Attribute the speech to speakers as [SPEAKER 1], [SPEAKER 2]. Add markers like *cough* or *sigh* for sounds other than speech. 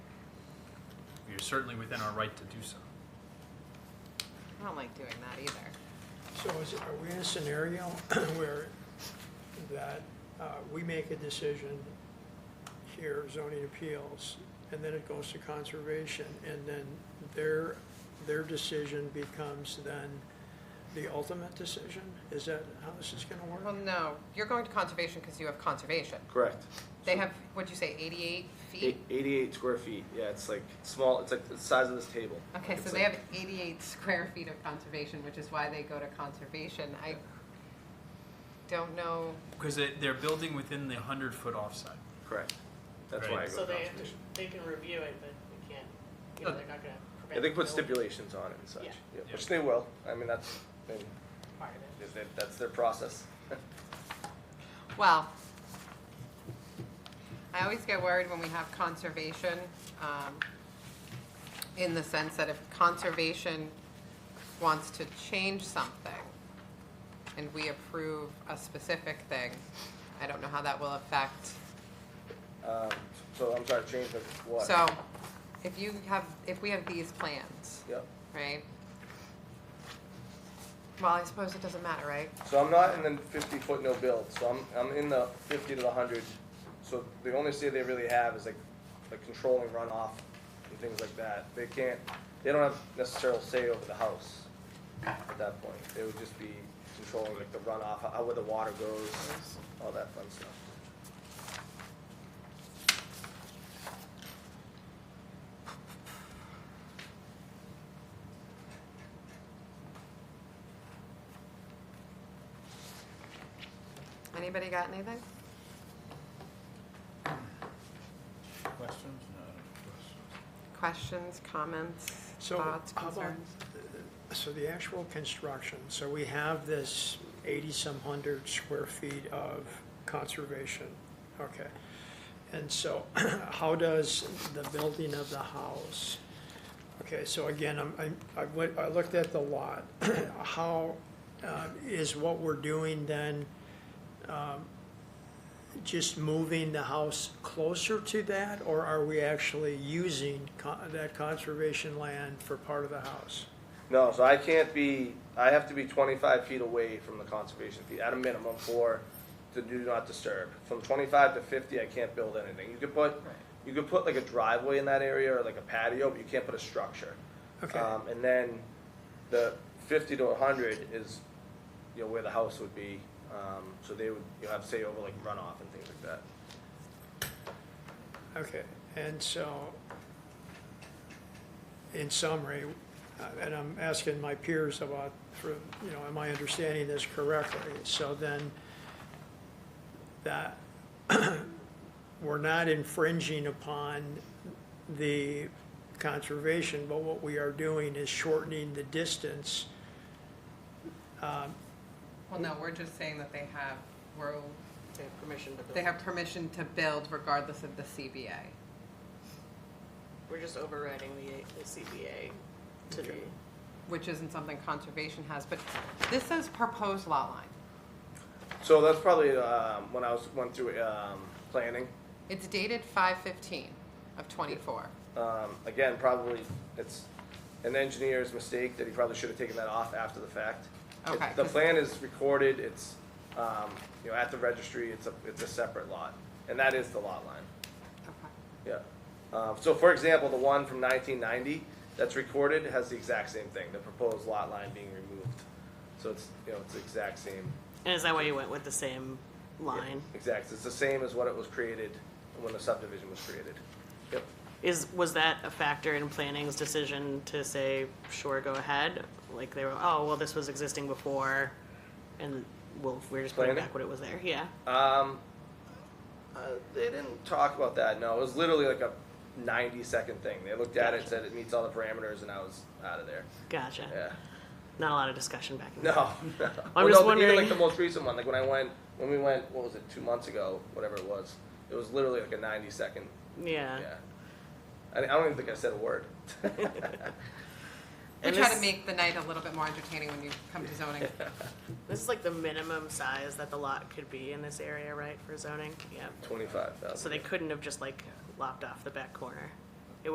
[SPEAKER 1] is certainly within our right to do so.
[SPEAKER 2] I don't like doing that either.
[SPEAKER 3] So is, are we in a scenario *clears throat* where that uh, we make a decision here, zoning appeals, and then it goes to conservation, and then their, their decision becomes then the ultimate decision? Is that how this is gonna
[SPEAKER 2] Well,
[SPEAKER 3] work?
[SPEAKER 2] no, you're going to conservation because you have conservation.
[SPEAKER 4] Correct.
[SPEAKER 2] They have, what'd you say, 88
[SPEAKER 4] Eight-
[SPEAKER 2] feet?
[SPEAKER 4] 88 square feet. Yeah, it's like small. It's like the size of this table.
[SPEAKER 2] Okay,
[SPEAKER 4] It's
[SPEAKER 2] so they
[SPEAKER 4] like-
[SPEAKER 2] have 88 square feet of conservation, which is why they go to conservation. I don't know,
[SPEAKER 1] Because they, they're building within the hundred foot offside.
[SPEAKER 4] Correct. That's
[SPEAKER 1] Right.
[SPEAKER 4] why I go
[SPEAKER 5] So they have to,
[SPEAKER 4] conservation.
[SPEAKER 5] they can review it, but they can't, you know, they're not gonna prevent.
[SPEAKER 4] Yeah, they put
[SPEAKER 5] the
[SPEAKER 4] stipulations on it and such.
[SPEAKER 5] Yeah.
[SPEAKER 4] Yeah,
[SPEAKER 1] Yeah.
[SPEAKER 4] Which they will. I mean, that's I mean,
[SPEAKER 5] building part of it.
[SPEAKER 4] if they- that's their process.
[SPEAKER 2] well, I always get worried when we have conservation, um, in the sense that if conservation wants to change something and we approve a specific thing, I don't know how that will affect
[SPEAKER 4] Um, so I'm sorry, change of what?
[SPEAKER 2] So, if you have, if we have these plans,
[SPEAKER 4] Yep.
[SPEAKER 2] right? Well, I suppose it doesn't matter, right?
[SPEAKER 4] So I'm not in the 50 foot no build. So I'm I'm in the 50 to the 100. So the only say they really have is like like controlling runoff and things like that. They can't. They don't have necessarily say over the house at that point. They would just be controlling like the runoff, how where the water goes, all that fun stuff.
[SPEAKER 2] Anybody got anything?
[SPEAKER 6] Questions? No.
[SPEAKER 2] Questions, comments,
[SPEAKER 3] So
[SPEAKER 2] thoughts,
[SPEAKER 3] how about-
[SPEAKER 2] concerns?
[SPEAKER 3] So the actual construction, so we have this eighty-some hundred square feet of conservation, okay. And so *clears throat* how does the building of the house? Okay, so again, I'm, I'm- I, went- I looked at the lot. *clears throat* How, uh, is what we're doing then, um, just moving the house closer to that? Or are we actually using con- that conservation land for part of the house?
[SPEAKER 4] No, so I can't be, I have to be twenty-five feet away from the conservation fee, at a minimum for the do not disturb. From twenty-five to fifty, I can't build anything. You could put, you could put like a driveway in that area or like a patio, but you can't put a structure.
[SPEAKER 3] Okay.
[SPEAKER 4] Um, and then the fifty to hundred is, you know, where the house would be, um, so they would, you have say over like runoff and things like that.
[SPEAKER 3] Okay, and so, in summary, uh, and I'm asking my peers about, for, you know, am I understanding this correctly? So then, that, *clears throat* we're not infringing upon the conservation, but what we are doing is shortening the distance.
[SPEAKER 2] Well, no, we're just saying that they have, we're,
[SPEAKER 5] They have permission to build.
[SPEAKER 2] they have permission to build regardless of the CBA.
[SPEAKER 5] We're just overriding the, the CBA to the,
[SPEAKER 3] Okay.
[SPEAKER 2] Which isn't something conservation has, but this says proposed lot line.
[SPEAKER 4] So that's probably, um, when I was, went through, um, planning,
[SPEAKER 2] It's dated five fifteen of twenty-four.
[SPEAKER 4] Um, again, probably it's an engineer's mistake that he probably should have taken that off after the fact. It-
[SPEAKER 2] Okay.
[SPEAKER 4] The plan is recorded, it's, um, you know, at the registry, it's a, it's a separate lot, and that is the lot line,
[SPEAKER 2] Okay.
[SPEAKER 4] yeah. Um, so for example, the one from nineteen ninety that's recorded has the exact same thing, the proposed lot line being removed. So it's, you know, it's the exact same.
[SPEAKER 7] And is that why you went with the same line?
[SPEAKER 4] Exact, it's the same as what it was created when the subdivision was created. Yep.
[SPEAKER 7] Is, was that a factor in planning's decision to say, sure, go ahead? Like they were, oh, well, this was existing before and we'll, we're just putting
[SPEAKER 4] Planning?
[SPEAKER 7] back what it was there, yeah.
[SPEAKER 4] Um, uh, they didn't talk about that. No, it was literally like a ninety-second thing. They looked at it, said it meets all the parameters, and I was out of
[SPEAKER 7] *laughs*
[SPEAKER 4] there.
[SPEAKER 7] Gotcha.
[SPEAKER 4] Yeah. *laughs*
[SPEAKER 7] Not a lot of discussion back in
[SPEAKER 4] No. no.
[SPEAKER 7] I'm
[SPEAKER 4] Well,
[SPEAKER 7] just
[SPEAKER 4] no, but even,
[SPEAKER 7] wondering-
[SPEAKER 4] like the most recent one, like when I went, when we went, what was it, two months ago, whatever it was. It was literally like a ninety-second.
[SPEAKER 7] Yeah.
[SPEAKER 4] Yeah. I, I don't even think I said a word. *laughs*
[SPEAKER 2] We
[SPEAKER 7] And
[SPEAKER 2] try to
[SPEAKER 7] this-
[SPEAKER 2] make the night a little bit more entertaining when you come to zoning.
[SPEAKER 7] This is like the minimum size that the lot could be in this area, right, for zoning? Yeah.
[SPEAKER 4] Twenty-five thousand.
[SPEAKER 7] So they couldn't have just like lopped off the back corner.